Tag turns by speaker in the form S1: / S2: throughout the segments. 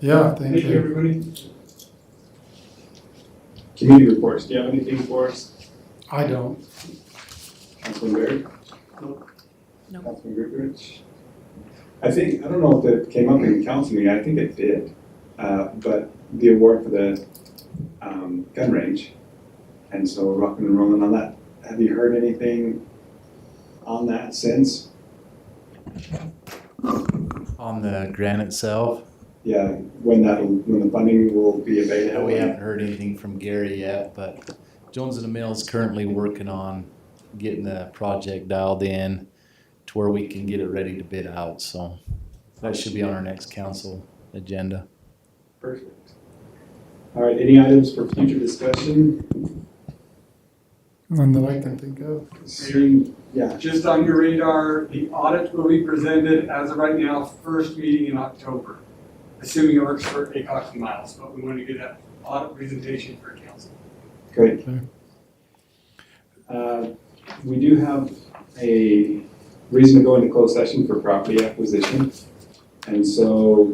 S1: Yeah,
S2: Thank you, everybody.
S3: Community reports, do you have anything for us?
S1: I don't.
S3: Councilman Berry?
S2: Nope.
S4: No.
S3: Councilman Goodrich? I think, I don't know if that came up in the council meeting, I think it did, uh, but the award for the, um, gun range. And so we're rocking and rolling on that. Have you heard anything on that since?
S5: On the grant itself,
S3: Yeah, when that'll, when the funding will be
S5: yeah,
S2: Oh,
S3: available?
S5: we haven't heard anything from Gary yet, but Jones and the Mill is currently working on getting the project dialed in to where we can get it ready to bid out, so that should be on our next council agenda.
S3: Perfect. All right, any items for future discussion?
S1: None that I can think of.
S3: Seeing, yeah,
S2: Just on your radar, the audit will be presented as of right now, first meeting in October. Assuming it works for ACOX and Miles, but we wanted to get that audit presentation for council.
S3: Great.
S1: Okay.
S3: Uh, We do have a reason to go into closed session for property acquisition. And so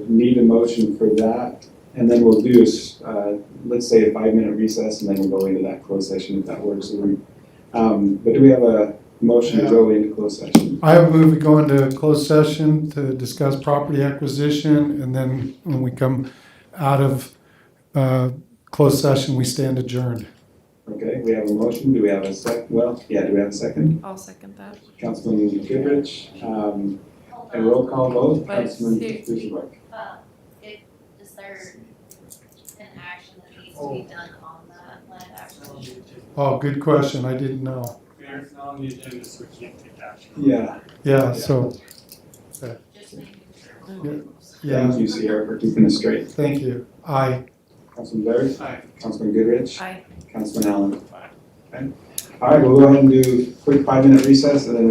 S3: need a motion for that. And then we'll do, is, uh, let's say a five-minute recess and then we'll go into that closed session if that works. Um, But do we have a motion to go into closed session?
S1: I have moved, we go into closed session to discuss property acquisition, and then when we come out of uh, closed session, we stand adjourned.
S3: Okay, we have a motion. Do we have a sec, well, yeah, do we have a second?
S4: I'll second that.
S3: Councilman Goodrich, um, a roll call vote,
S4: But
S3: Councilman
S4: here-
S3: Dushenback.
S6: Uh, if, is there an action that needs to be done on that land acquisition?
S1: Oh, good question, I didn't know.
S2: Mayor, it's not on the agenda, so we can't take action.
S3: Yeah,
S1: Yeah, so,
S6: Just making sure.
S1: yeah,
S3: Thank you, Sierra, for keeping us straight.
S1: thank you. Aye.
S3: Councilman Blair,
S2: Aye.
S3: Councilman Goodrich,
S4: Aye.
S3: Councilman Allen. Okay. All right, we'll go ahead and do a quick five-minute recess and then